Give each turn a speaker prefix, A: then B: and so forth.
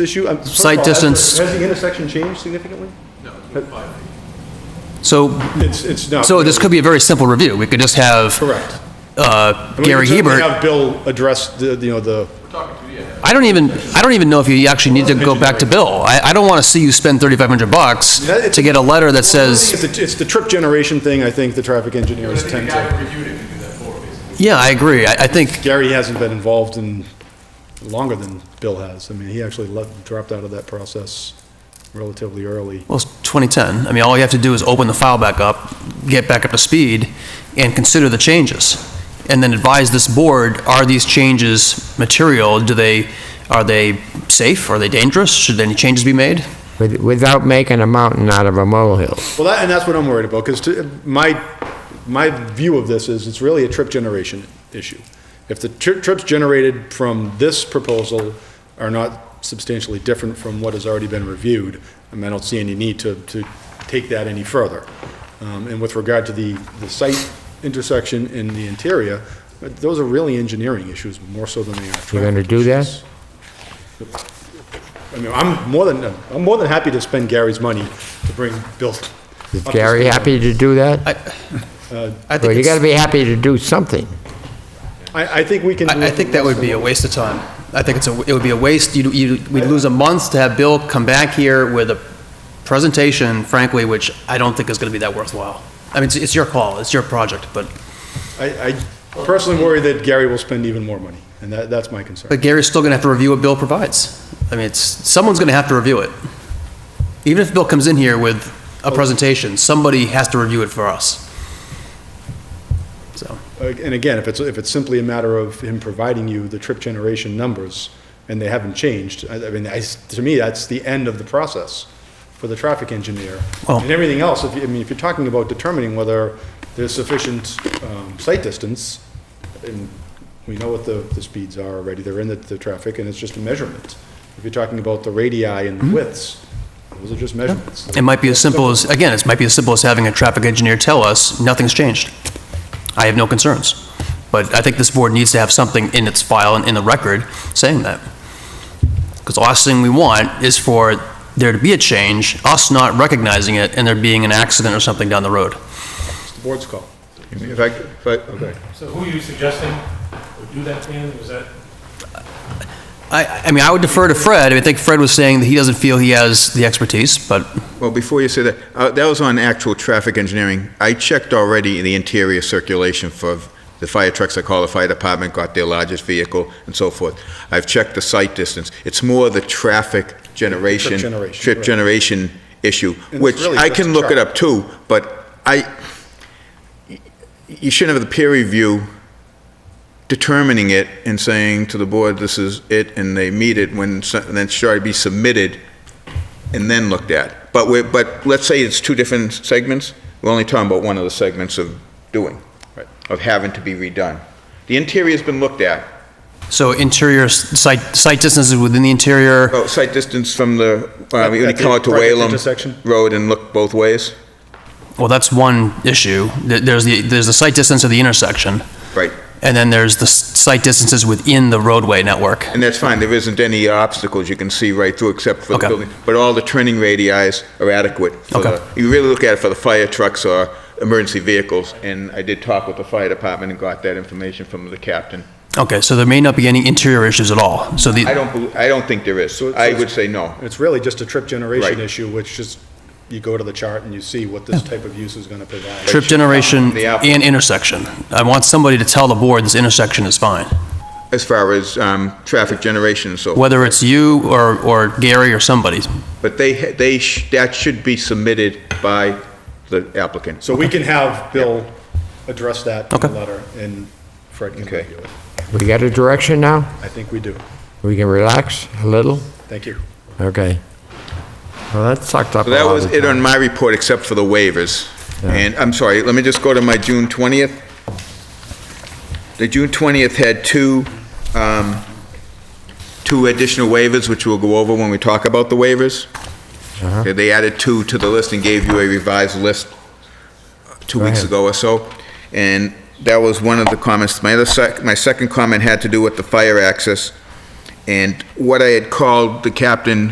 A: issue? I'm- first of
B: Sight
A: all, has the-
B: distance.
A: Has the intersection changed significantly?
B: So,
A: It's, it's not.
B: so this could be a very simple review. We could just have
A: Correct.
B: uh,
A: I mean, we
B: Gary
A: could certainly
B: Hebert.
A: Have Bill address the, the, you know, the,
B: I don't even, I don't even know if you actually need to go back to Bill. I, I don't want to see you spend 3,500 bucks
A: Yeah, it's-
B: to get a letter that
A: it's
B: says,
A: the, it's the trip generation thing, I think the traffic engineers tend to.
B: yeah, I agree. I, I think,
A: Gary hasn't been involved in longer than Bill has. I mean, he actually left, dropped out of that process relatively early.
B: well, it's 2010. I mean, all you have to do is open the file back up, get back up to speed, and consider the changes. And then advise this board, are these changes material? Do they, are they safe? Are they dangerous? Should any changes be made?
C: with- without making a mountain out of a molehill.
A: Well, that, and that's what I'm worried about, because my, my view of this is it's really a trip generation issue. If the tri- trips generated from this proposal are not substantially different from what has already been reviewed, I mean, I don't see any need to, to take that any further. Um, And with regard to the, the site intersection and the interior, those are really engineering issues more so than they are traffic
C: You're gonna do
A: issues.
C: that?
A: I mean, I'm more than, I'm more than happy to spend Gary's money to bring Bill.
C: Is
A: up to
C: Gary
A: speed.
C: happy to do that?
B: I think
C: Well, you
B: it's-
C: gotta be happy to do something.
A: I, I think we can. do
B: I, I
A: it
B: think that
A: less
B: would be
A: than
B: a waste of time. I think it's a, it would be a waste, you, you, we'd lose a month to have Bill come back here with a presentation, frankly, which I don't think is gonna be that worthwhile. I mean, it's, it's your call, it's your project, but,
A: what- I, I personally worry that Gary will spend even more money, and that, that's my concern.
B: but Gary's still gonna have to review what Bill provides. I mean, it's, someone's gonna have to review it. Even if Bill comes in here with a presentation, somebody has to review it for us. So,
A: And again, if it's, if it's simply a matter of him providing you the trip generation numbers, and they haven't changed, I, I mean, I s to me, that's the end of the process for the traffic engineer.
B: Well-
A: And everything else, if, you- I mean, if you're talking about determining whether there's sufficient, um, sight distance, and we know what the, the speeds are already, they're in the, the traffic, and it's just a measurement. If you're talking about the radii and the widths, those are just measurements.
B: it might be as simple as, again, it might be as simple as having a traffic engineer tell us, nothing's changed. I have no concerns. But I think this board needs to have something in its file and in the record saying that. Because the last thing we want is for there to be a change, us not recognizing it, and there being an accident or something down the road.
A: It's the board's call.
D: If I, if I, okay.
E: So who are you suggesting would do that, Dan? Was that,
B: I, I mean, I would defer to Fred. I mean, I think Fred was saying that he doesn't feel he has the expertise, but
D: Well, before you say that, uh, that was on actual traffic engineering. I checked already the interior circulation for the fire trucks, I call the fire department, got their largest vehicle and so forth. I've checked the site distance. It's more the traffic generation.
A: generation,
D: trip
A: right.
D: generation issue,
A: it's
D: which
A: really
D: I
A: just
D: can
A: a
D: look it
A: chart.
D: up too, but I, you shouldn't have the peer review determining it and saying to the board, this is it, and they meet it when, so- and then it should be submitted and then looked at. But we're, but let's say it's two different segments, we're only talking about one of the segments of doing, of having to be redone. The interior's been looked at,
B: so interior s- site, site distances within the interior.
D: oh, site distance from the, uh,
A: At-
D: when you
A: at the
D: come out to
A: project
D: Whalen
A: intersection?
D: Road and look both ways,
B: Well, that's one issue. There- There's the, there's the site distance of the intersection,
D: right?
B: and then there's the s- site distances within the roadway network.
D: And that's fine, there isn't any obstacles you can see right through except for the
B: Okay.
D: building. But all the turning radii are adequate. for the-
B: Okay.
D: You really look at it for the fire trucks or emergency vehicles, and I did talk with the fire department and got that information from the captain.
B: Okay, so there may not be any interior issues at all. So
D: I
B: the,
D: don't, bel- I don't think there is.
A: So it's-
D: I would say no.
A: It's really just a trip generation
D: Right.
A: issue, which is, you go to the chart and you see what this type of use is gonna provide.
B: trip generation
D: The apple.
B: and intersection. I want somebody to tell the board this intersection is fine.
D: As far as um, traffic generation and so forth.
B: Whether it's you or, or Gary or somebody.
D: But they, ha- they, sh- that should be submitted by the applicant.
A: So we can have Bill address that in the
B: Okay.
A: letter, and Fred can
D: Okay.
A: review it.
C: We got a direction now?
A: I think we do.
C: We can relax a little?
A: Thank you.
C: Okay. Well, that sucked up a
D: So that
C: lot
D: was
C: of
D: it on
C: time.
D: my report, except for the waivers. And, I'm sorry, let me just go to my June 20th. The June 20th had two, um, two additional waivers, which we'll go over when we talk about the waivers.
C: Uh-huh.
D: Okay, They added two to the list and gave you a revised list uh, two
C: Go
D: weeks
C: ahead.
D: ago or so. And that was one of the comments. My other sec, my second comment had to do with the fire access. And what I had called the captain